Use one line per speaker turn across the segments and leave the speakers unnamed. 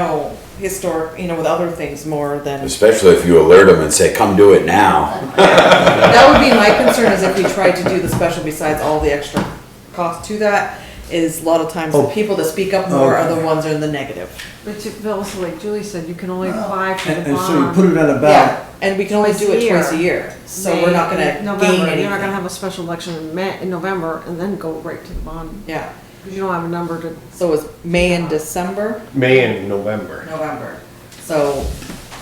know, historic, you know, with other things more than.
Especially if you alert them and say, come do it now.
That would be my concern is if we tried to do the special besides all the extra cost to that, is a lot of times the
Oh.
people that speak up more are the
Okay.
ones that are in the negative.
But you- Bill, so like Julie said, you can only apply for
And,
the
and so you
bond.
put it on a
Yeah,
ballot.
and we can only do it twice a year, so we're not
May,
gonna gain
November, you're not gonna
anything.
have a special election in Ma, in November and then go right to the bond,
Yeah,
because you don't have a number to,
so it's May and December,
May and November.
November, so.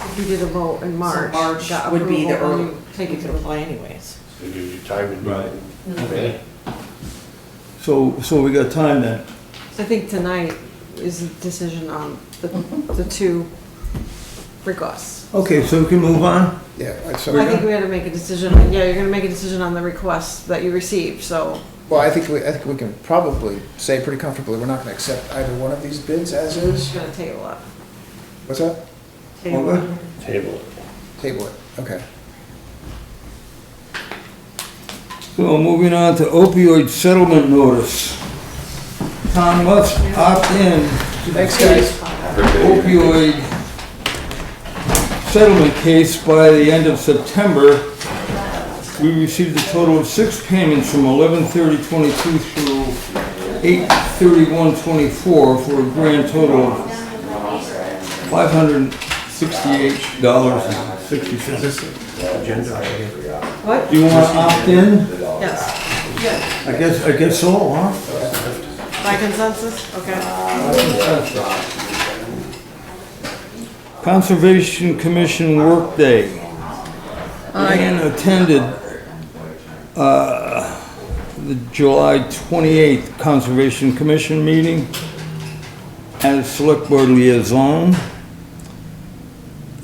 if you did a vote in
so
March.
March
got
would be the
approval, then
early,
you
take
Take
you
it to
could
the.
apply anyways.
So you do time and.
Right.
Okay.
So, so we got time then.
I think tonight is a decision on the, the two requests.
Okay, so we can move on?
Yeah,
I
so,
think we had to make a decision, on- yeah, you're gonna make a decision on the request that you received, so
well, I think, we I think we can probably say pretty comfortably, we're not gonna accept either one of these bids as
we're just
is.
gonna table it.
What's that?
Table
Okay.
it.
Table it.
Table it, okay.
So moving on to opioid settlement notice. Tom must opt in to the
Thanks, guys.
opioid settlement case by the end of September. We received a total of six payments from 11/30/22 through 8/31/24 for a grand total of $568.60.
What?
Do you want to opt in?
Yes,
I guess, I guess so, huh?
by consensus, okay.
Conservation Commission workday. Ann attended uh, the July 28th Conservation Commission meeting as Select Board liaison.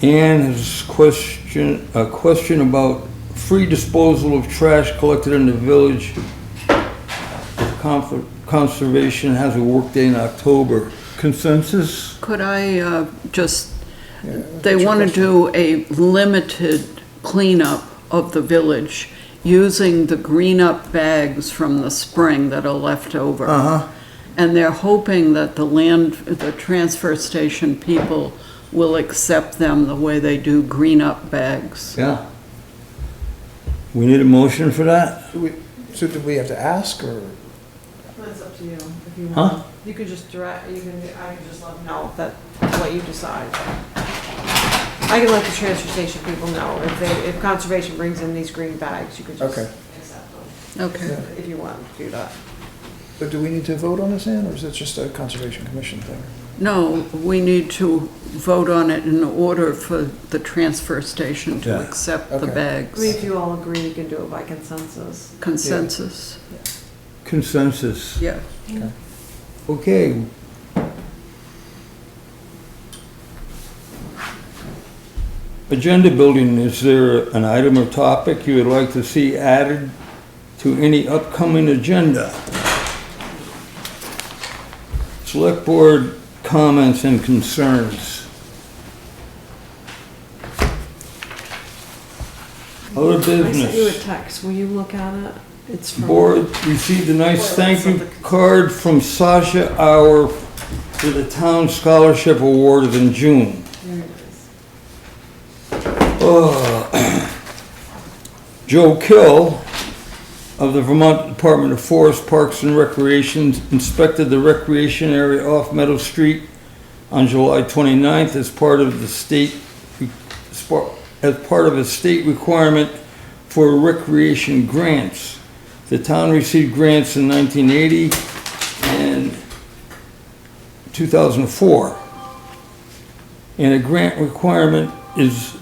Ann has question, a question about free disposal of trash collected in the village. If Conf- Conservation has a workday in October. Consensus?
Could I uh, just, they want to do a limited cleanup of the village using the green-up bags from the spring that are left over.
Uh-huh.
And they're hoping that the land, the transfer station people will accept them the way they do green-up bags.
Yeah. We need a motion for that?
Do we, so do we have to ask, or?
That's up to you, if you
Huh?
want. You could just direct, you can, I can just let them know that, what you decide. I can let the transfer station people know, if they, if conservation brings in these green bags, you could just
Okay.
accept them,
Okay.
if you want to do that.
But do we need to vote on this, Ann, or is it just a Conservation Commission thing?
No, we need to vote on it in order for the transfer station to
Yeah.
accept the
Okay.
I mean,
bags.
if you all agree, you can do it by consensus.
Consensus,
Consensus.
yeah.
Okay. Agenda building, is there an item or topic you would like to see added to any upcoming agenda? Select board comments and concerns. Other
I sent you a
business.
text, will you look at it? It's from.
Board received a nice thank you card from Sasha Hour for the Town Scholarship Award in June.
There it is.
Ugh. Oh. Joe Kill of the Vermont Department of Forest Parks and Recreation inspected the recreation area off Meadow Street on July 29th as part of the state, as part of a state requirement for recreation grants. The town received grants in 1980 and 2004. And a grant requirement is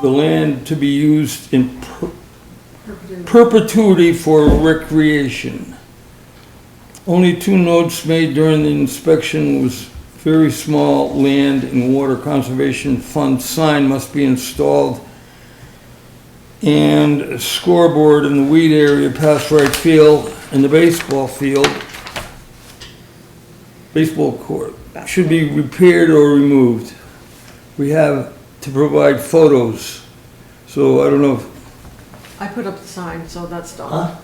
the land to be used in per- perpetuity for recreation. Only two notes made during the inspection was very small land and water conservation fund sign must be installed and a scoreboard in the weed area past right field and the baseball field, baseball court, should be repaired or removed. We have to provide photos, so I don't know if.
I put up the sign, so that's done.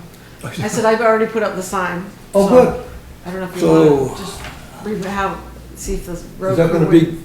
I said I've already put up the sign.
Oh,
so
good.
I don't know if you
So-
want to just re- have,
see if the road.
Is that gonna be